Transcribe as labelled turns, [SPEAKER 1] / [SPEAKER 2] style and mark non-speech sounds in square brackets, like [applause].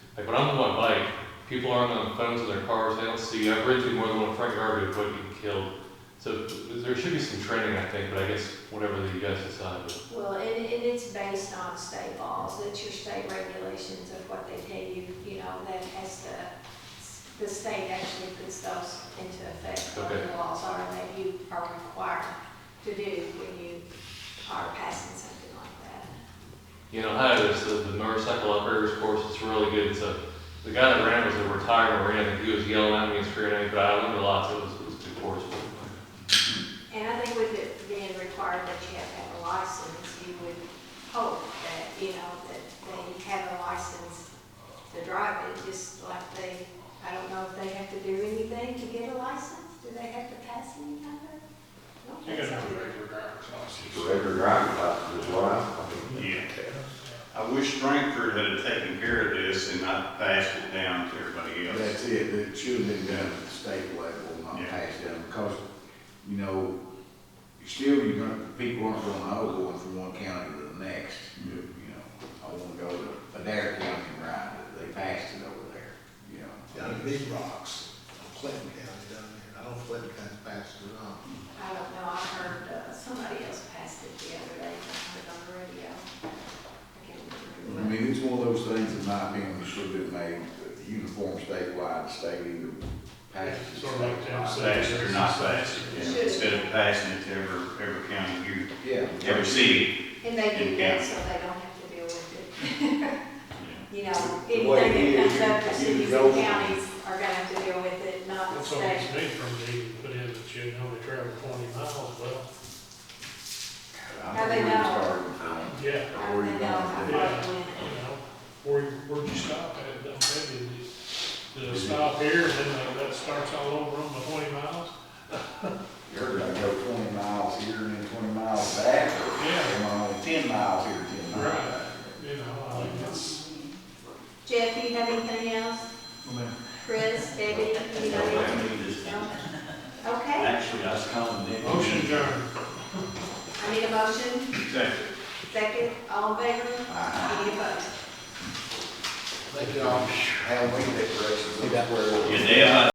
[SPEAKER 1] Like when I'm on my bike, people aren't on the phones of their cars, they don't see, you. I've ridden through more than one front yard of what you killed. So there should be some training, I think, but I guess whatever that you guys decide. but-
[SPEAKER 2] Well, and, and it's based on state laws, that's your state regulations of what they tell you, you know, that has the, the state actually puts those into effect, what the laws are that you are required to do when you are passing something like that.
[SPEAKER 1] You know, Ohio, there's the, the motorcycle operators course, it's really good. It's a, the guy that ran was a retired Marine, and he was yelling at me and screaming at me, but I learned a lot, so it was, it was a good course.
[SPEAKER 2] And I think with it being required that you have to have a license, you would hope that, you know, that they have a license to drive it, just like they, I don't know if they have to do anything to get a license, do they have to pass any kind of?
[SPEAKER 3] You gotta have a regular driver's license.
[SPEAKER 4] Regular driving license as well.
[SPEAKER 5] Yeah. I wish Frankfurt had taken care of this and not passed it down to everybody else.
[SPEAKER 4] That's it, it should have been done at the state level, not
[SPEAKER 5] Yeah.
[SPEAKER 4] passed down, because, you know, still you're gonna, people aren't gonna know going from one county to the next. You
[SPEAKER 3] Mm-hmm.
[SPEAKER 4] know, I wanna go to Adair County and ride it, they passed it over there, you know.
[SPEAKER 6] down in Big Rocks, Clinton County down there, I don't know if Clinton County's passed it or not.
[SPEAKER 2] I don't know, I heard, uh, somebody else passed it the other day, I heard on the radio. I can't
[SPEAKER 4] I
[SPEAKER 2] remember.
[SPEAKER 4] mean, it's one of those things, in my opinion, should have been made uniform statewide, state either passes.
[SPEAKER 3] Sort of like Tim said.
[SPEAKER 5] Passed it or not passed it,
[SPEAKER 2] Should.
[SPEAKER 5] yeah. instead of passing it to every, every county here,
[SPEAKER 4] Yeah.
[SPEAKER 5] every city.
[SPEAKER 2] And they do that so they don't have to deal with it. [laughs]
[SPEAKER 5] yeah.
[SPEAKER 2] you know,
[SPEAKER 4] The way
[SPEAKER 2] anything that
[SPEAKER 4] it is,
[SPEAKER 2] comes up, the
[SPEAKER 4] you- you
[SPEAKER 2] cities
[SPEAKER 4] go-
[SPEAKER 2] and counties are gonna have to deal with it, not the
[SPEAKER 3] That's all it's
[SPEAKER 2] state.
[SPEAKER 3] made from me, put in that you know they travel twenty miles, well,
[SPEAKER 4] I think we started from-
[SPEAKER 3] yeah,
[SPEAKER 2] I don't know how far it
[SPEAKER 3] you
[SPEAKER 2] went.
[SPEAKER 3] know, where, where'd you stop at, don't maybe, did it stop here, and then that starts all over on the twenty miles?
[SPEAKER 4] You're gonna go twenty miles here and then twenty miles back, or
[SPEAKER 3] Yeah,
[SPEAKER 4] am I only ten miles here, ten miles
[SPEAKER 3] Right.
[SPEAKER 4] back?
[SPEAKER 3] you know, I think it's,
[SPEAKER 2] Jeff, do you have anything else? Chris, Debbie, you know anything? No? Okay,
[SPEAKER 5] Actually, I was calling Nick.
[SPEAKER 3] motion adjourned.
[SPEAKER 2] I need a motion,
[SPEAKER 5] Second.
[SPEAKER 2] second, all in favor,
[SPEAKER 4] Uh,
[SPEAKER 2] any opposed?
[SPEAKER 4] They did all Halloween decorations.
[SPEAKER 5] Yeah, they, uh,